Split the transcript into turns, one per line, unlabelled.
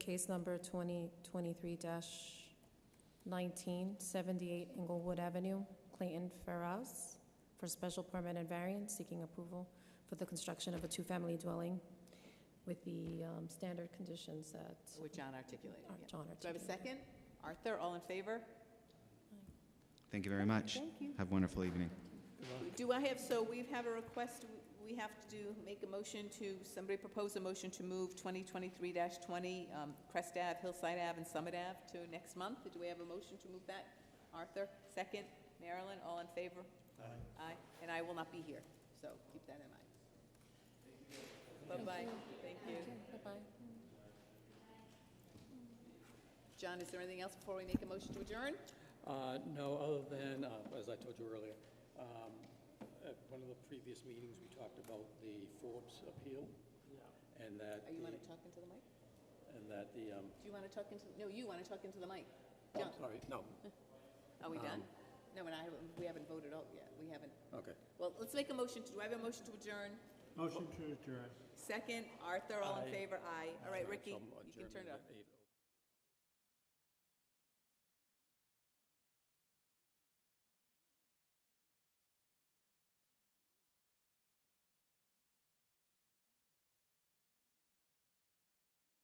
case number 2023-1978 Englewood Avenue, Clayton Ferraz, for special permit and variance, seeking approval for the construction of a two-family dwelling with the um, standard conditions that
Which John articulated.
are-
yeah.
John
Do I have a
articulated.
second? Arthur, all in favor?
Thank you very much.
Thank you.
Have a wonderful evening.
Do I have, so we have a request, we have to do, make a motion to, somebody propose a motion to move 2023-20 um, Crest Ave, Hillside Ave, and Summit Ave to next month. Do we have a motion to move that? Arthur, second. Marilyn, all in favor? Aye. Aye, and I will not be here, so keep that in mind. Bye-bye, thank you.
Thank you. Bye-bye.
John, is there anything else before we make a motion to adjourn?
Uh, No, other than, uh, as I told you earlier, um, at one of the previous meetings, we talked about the Forbes appeal, and that,
Are you
the-
want to talk into the mic?
and that the, um,
Do you want to talk into, no, you want to talk into the mic. John,
I'm sorry, no,
are we done? No, and I, haven't- we haven't voted out yet, we haven't.
okay.
Well, let's make a motion, to- do I have a motion to adjourn?
Motion to adjourn.
Second, Arthur, all in
Aye.
favor, aye. All right, Ricky,
Some
you can turn
adjournment
it off.
at eight oh.